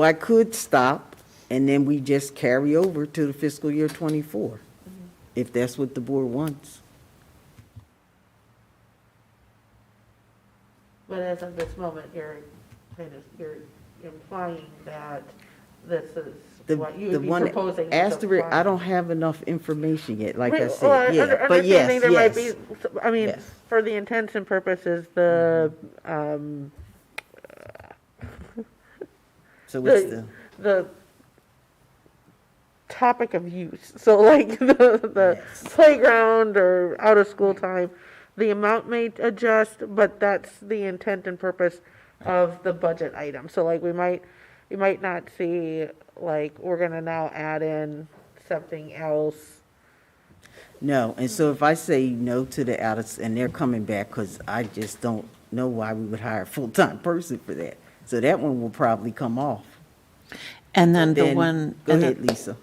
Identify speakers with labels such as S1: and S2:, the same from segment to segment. S1: Well, I could stop, and then we just carry over to the fiscal year '24, if that's what the board wants.
S2: But as of this moment, you're kind of, you're implying that this
S1: The
S2: is what you
S1: the
S2: would be
S1: one
S2: proposing. is
S1: asterisk, I
S2: applied.
S1: don't have enough information yet, like I
S2: Right, well,
S1: said,
S2: under-
S1: yeah, but yes,
S2: understanding there might
S1: yes.
S2: be s- I mean,
S1: yes. Mm-hmm.
S2: for the intents and purposes, the, um,
S1: So it's
S2: the,
S1: the,
S2: the topic of use, so like the, the
S1: Yes.
S2: playground or out of school time, the amount may adjust, but that's the intent and purpose of the budget item, so like we might, you might not see, like, we're gonna now add in something else.
S1: no, and so if I say no to the out of, and they're coming back, because I just don't know why we would hire a full-time person for that. So that one will probably come off.
S3: And then the
S1: Then-
S3: one,
S1: Go
S3: and
S1: ahead,
S3: the-
S1: Lisa.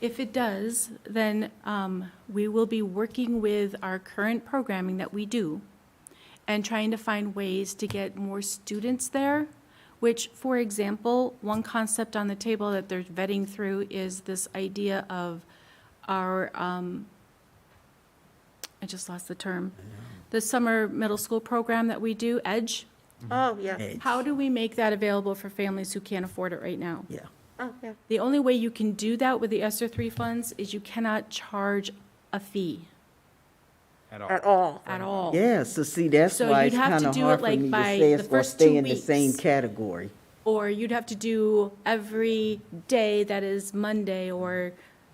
S4: If it does, then um, we will be working with our current programming that we do and trying to find ways to get more students there, which, for example, one concept on the table that they're vetting through is this idea of our, um, I just lost the term, the summer middle school program that we do, EDGE.
S2: Oh, yeah,
S1: Mm-hmm. Hey,
S4: How do we make that available for families who can't afford it right now?
S1: Yeah.
S2: oh, yeah.
S4: The only way you can do that with the ESSER three funds is you cannot charge a fee
S5: at all.
S2: at all.
S4: at all.
S1: Yeah, so see, that's
S4: Oh. So
S1: why
S4: you'd
S1: it's
S4: have
S1: kind
S4: to
S1: of
S4: do it,
S1: hard for
S4: like,
S1: me to
S4: by
S1: say
S4: the
S1: it's going to
S4: first two
S1: stay in the same
S4: weeks.
S1: category.
S4: Or you'd have to do every day that is Monday or,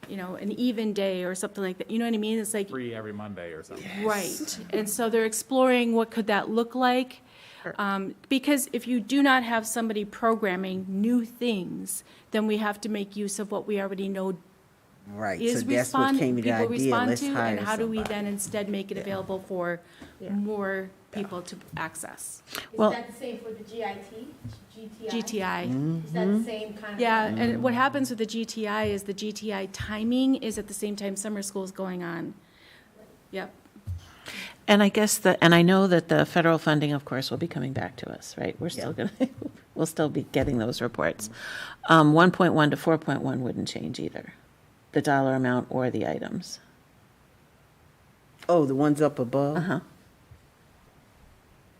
S4: you know, an even day or something like that. You know what I mean? It's like,
S5: Free every Monday or something.
S4: right. And so they're exploring what could that look like? Um, Because if you do not have somebody programming new things, then we have to make use of what we already know
S1: Right, so
S4: is
S1: that's what
S4: respond,
S1: came to the
S4: people
S1: idea,
S4: respond
S1: let's
S4: to, and
S1: hire
S4: how do we
S1: somebody.
S4: then instead make it available for
S2: Yeah.
S4: more people to access?
S6: Is
S3: Well-
S6: that the same for the GIT? GTI?
S1: Mm-hmm.
S4: GTI.
S6: Is that the same kind of?
S4: Yeah, and what happens with the GTI is the GTI timing is at the same time summer school's going on. Yep.
S3: and I guess the, and I know that the federal funding, of course, will be coming back to us, right? We're still going to, we'll still be getting those reports. Um, 1.1 to 4.1 wouldn't change either, the dollar amount or the items.
S1: Oh, the ones up above?
S3: Uh-huh.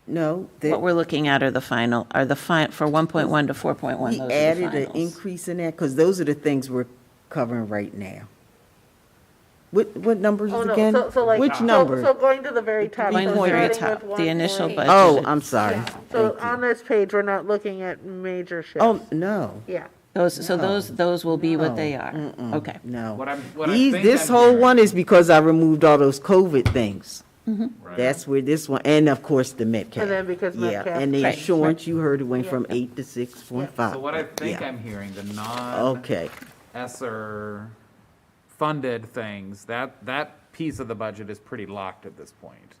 S1: No, they,
S3: What we're looking at are the final, are the fi, for 1.1 to 4.1, those
S1: we
S3: are the
S1: added an
S3: finals.
S1: increase in that, because those are the things we're covering right now. What, what numbers
S2: Oh, no,
S1: again?
S2: so, so like.
S1: Which
S2: so-
S1: number?
S2: So going to the very top.
S3: Going
S2: so
S3: to the very
S2: starting
S3: top,
S2: with
S3: the initial
S2: 1.8.
S3: budget.
S1: Oh, I'm sorry.
S2: So
S1: Thank you.
S2: on this page, we're not looking at major shifts.
S1: Oh, no,
S2: Yeah,
S3: Those, so those, those will be
S1: No.
S3: what they are. Okay.
S5: What
S1: no.
S5: I'm, what I
S1: These,
S5: think
S1: this
S5: I'm
S1: whole
S5: hearing-
S1: one is because I removed all those COVID things.
S5: Right.
S1: That's where this one, and of course, the Metcalf.
S2: And then because
S1: Yeah,
S2: Metcalf-
S1: and the
S3: Right, right.
S1: insurance, you heard it went from eight to six point five.
S5: So what I think
S1: Yeah.
S5: I'm hearing, the non
S1: Okay,
S5: ESSER funded things, that, that piece of the budget is pretty locked at this point.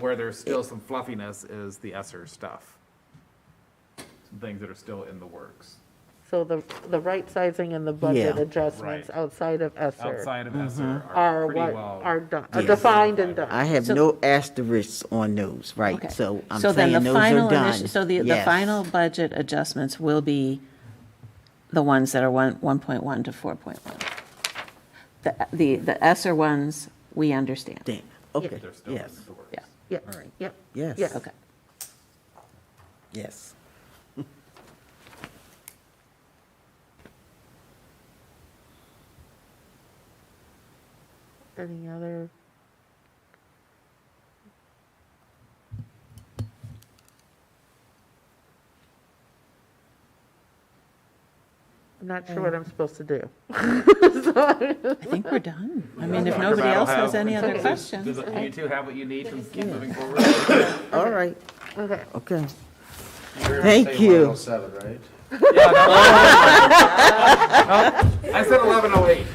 S5: Where there's still some fluffiness is the ESSER stuff. Some things that are still in the works,
S2: so the, the right sizing and the budget
S1: Yeah.
S2: adjustments
S5: Right.
S2: outside of ESER
S5: outside
S3: Mm-hmm.
S5: of ESSER
S2: are
S5: are pretty
S2: what
S5: well.
S2: are done, are
S1: Yeah.
S2: defined and
S1: I
S2: done.
S1: have
S3: So-
S1: no asterisks on those, right,
S3: Okay.
S1: so I'm
S3: So then
S1: saying
S3: the
S1: those are
S3: final
S1: done.
S3: initi- So the, the
S1: Yes.
S3: final budget adjustments will be the ones that are one, 1.1 to 4.1. The, the, the ESER ones, we understand.
S1: Then, Okay,
S5: They're still in
S1: yes,
S5: the works.
S3: Yeah.
S2: Yeah, yeah.
S1: Yes.
S2: yeah.
S3: Okay.
S1: yes.
S2: Any other? I'm not sure
S1: Um,
S2: what I'm supposed to do.
S3: I think we're done. I mean, if
S5: Dr.
S3: nobody else
S5: Battle
S3: has any
S5: have-
S3: other
S5: does-
S3: questions.
S5: does- Do you two have what you need to keep moving forward?
S1: All right,
S2: Okay.
S1: okay.
S7: You're
S1: Thank
S7: gonna say
S1: you.
S7: 107, right?
S5: I said 1108.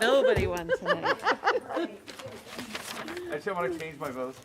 S3: Nobody won tonight.
S5: I just want to change my vote.